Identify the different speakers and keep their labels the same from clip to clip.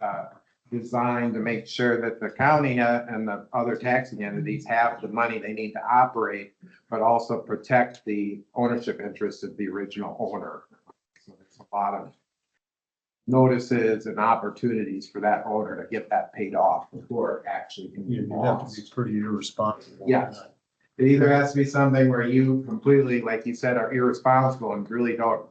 Speaker 1: uh, designed to make sure that the county uh, and the other taxing entities have the money they need to operate, but also protect the ownership interest of the original owner. So there's a lot of notices and opportunities for that owner to get that paid off before it actually can be
Speaker 2: You you have to
Speaker 1: lost.
Speaker 2: be pretty irresponsible.
Speaker 1: Yes. It either has to be something where you completely, like you said, are irresponsible and really don't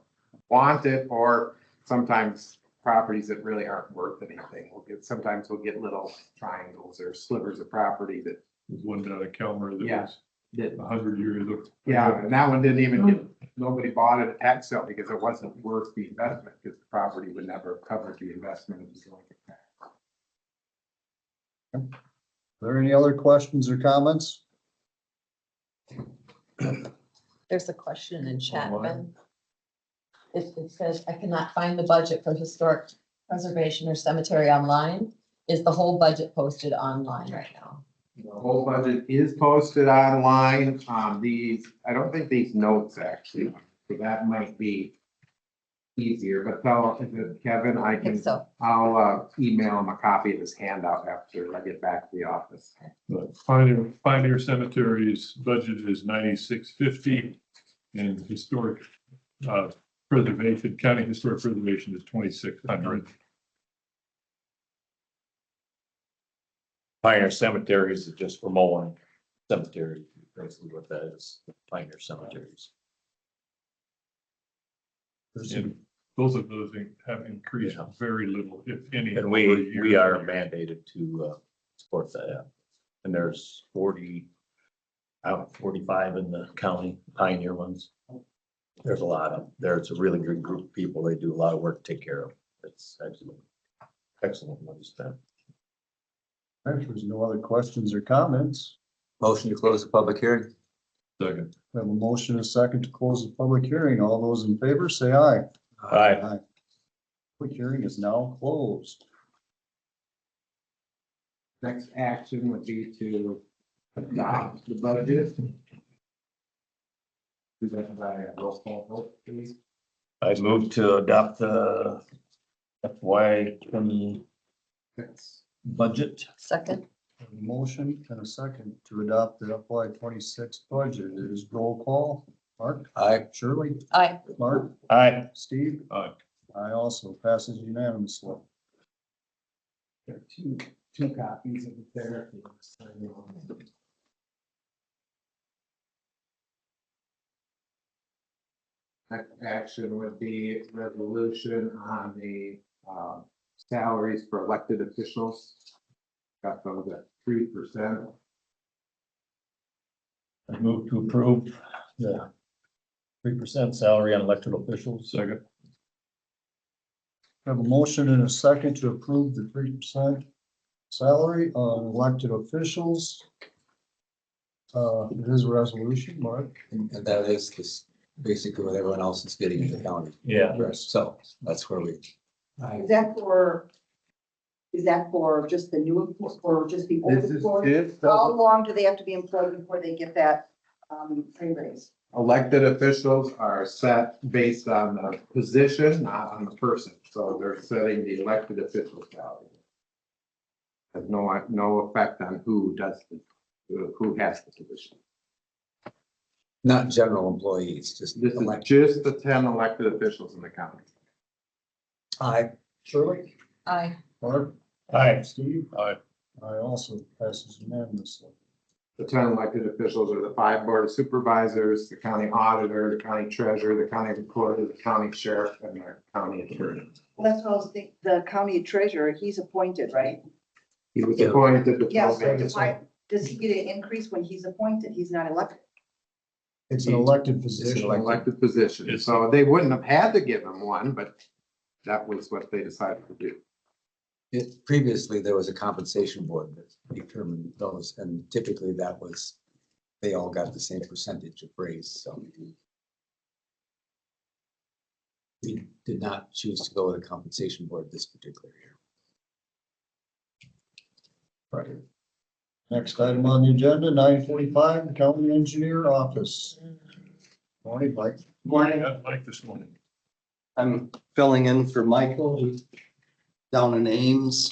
Speaker 1: want it, or sometimes properties that really aren't worth anything. We'll get, sometimes we'll get little triangles or slivers of property that,
Speaker 3: There's one down at Calmer that
Speaker 1: Yeah.
Speaker 3: was a hundred years old.
Speaker 1: yeah, and that one didn't even get, nobody bought it at tax sale because it wasn't worth the investment, because the property would never have covered the investment. It was like a tax.
Speaker 2: Are there any other questions or comments?
Speaker 4: There's a question in Chapman.
Speaker 2: Online.
Speaker 4: It, it says, I cannot find the budget for historic preservation or cemetery online. Is the whole budget posted online right now?
Speaker 1: The whole budget is posted online. Um, these, I don't think these notes actually, so that might be easier, but tell, if it- Kevin, I
Speaker 4: I think
Speaker 1: can,
Speaker 4: so.
Speaker 1: I'll, uh, email him a copy of his handout after I get back to the office.
Speaker 3: But Pioneer, Pioneer Cemetery's budget is ninety-six fifty and historic, uh, preservation, county historic preservation is twenty-six hundred.
Speaker 5: Pioneer cemeteries is just for mowing cemetery, basically what that is, pioneer cemeteries.
Speaker 2: There's
Speaker 3: And both of those have increased
Speaker 5: Yeah.
Speaker 3: very little, if any.
Speaker 5: And
Speaker 3: over a
Speaker 5: we,
Speaker 3: year.
Speaker 5: we are mandated to uh, support that. And there's forty, out forty-five in the county pioneer ones. There's a lot of, there, it's a really good group of people. They do a lot of work, to take care of. It's excellent. Excellent money spent.
Speaker 2: if there's no other questions or comments.
Speaker 6: Motion to close the public hearing.
Speaker 3: Second.
Speaker 2: We have a motion and a second to close the public hearing. All those in favor, say aye.
Speaker 5: Aye.
Speaker 2: Public hearing is now closed.
Speaker 1: Next action would be to adopt the budget. Is that by a roll call vote, please?
Speaker 5: I move to adopt the FY twenty
Speaker 1: That's-
Speaker 5: budget.
Speaker 4: Second,
Speaker 2: A Motion and a second to adopt the FY twenty-six budget. It is roll call. Mark,
Speaker 6: Aye.
Speaker 2: Shirley,
Speaker 4: aye,
Speaker 2: Mark,
Speaker 5: Aye.
Speaker 2: Steve.
Speaker 3: Aye.
Speaker 2: I also passes unanimously.
Speaker 1: There are two, two copies of the therapy. Next action would be resolution on the um, salaries for elected officials. Got those at three percent.
Speaker 5: I move to approve the three percent salary on elected officials.
Speaker 3: Second.
Speaker 2: We Have a motion and a second to approve the three percent salary on elected officials. Uh, it is a resolution, Mark.
Speaker 6: And and that is just basically what everyone else is getting in the county.
Speaker 5: Yeah.
Speaker 6: So that's where we.
Speaker 7: Is that for, is that for just the new, employees or just the old
Speaker 1: This is,
Speaker 7: employees?
Speaker 1: this,
Speaker 7: How
Speaker 1: the
Speaker 7: long do they have to be employed before they get that, um, pay raise?
Speaker 1: elected officials are set based on the position, not on the person. So they're setting the elected official salary. Has no, no effect on who does, the who has the position.
Speaker 6: Not general employees, just
Speaker 1: This is
Speaker 6: elect.
Speaker 1: just the ten elected officials in the county.
Speaker 6: Aye.
Speaker 2: Shirley?
Speaker 4: aye.
Speaker 2: Mark?
Speaker 5: Aye.
Speaker 2: Steve?
Speaker 3: Aye.
Speaker 2: I also passes unanimously.
Speaker 1: The ten elected officials are the five board of supervisors, the county auditor, the county treasurer, the county recorder, the county sheriff, and the county attorney.
Speaker 7: Well, that's what I was thinking, the county treasurer, he's appointed, right?
Speaker 1: He was appointed to
Speaker 7: Yeah,
Speaker 1: fill
Speaker 7: so
Speaker 1: vacancies.
Speaker 7: why, does he get an increase when he's appointed? He's not elected.
Speaker 2: It's an elected
Speaker 1: It's
Speaker 2: position.
Speaker 1: an elected position, so they wouldn't have had to give him one, but that was what they decided to do.
Speaker 6: It- Previously, there was a compensation board that determined those, and typically that was, they all got the same percentage of raise, so. We did not choose to go with a compensation board this particular year.
Speaker 2: Next item on the agenda, nine forty-five, the county engineer office. Morning, Mike.
Speaker 8: Morning,
Speaker 3: I like this morning.
Speaker 8: I'm filling in for Michael who's down in Ames.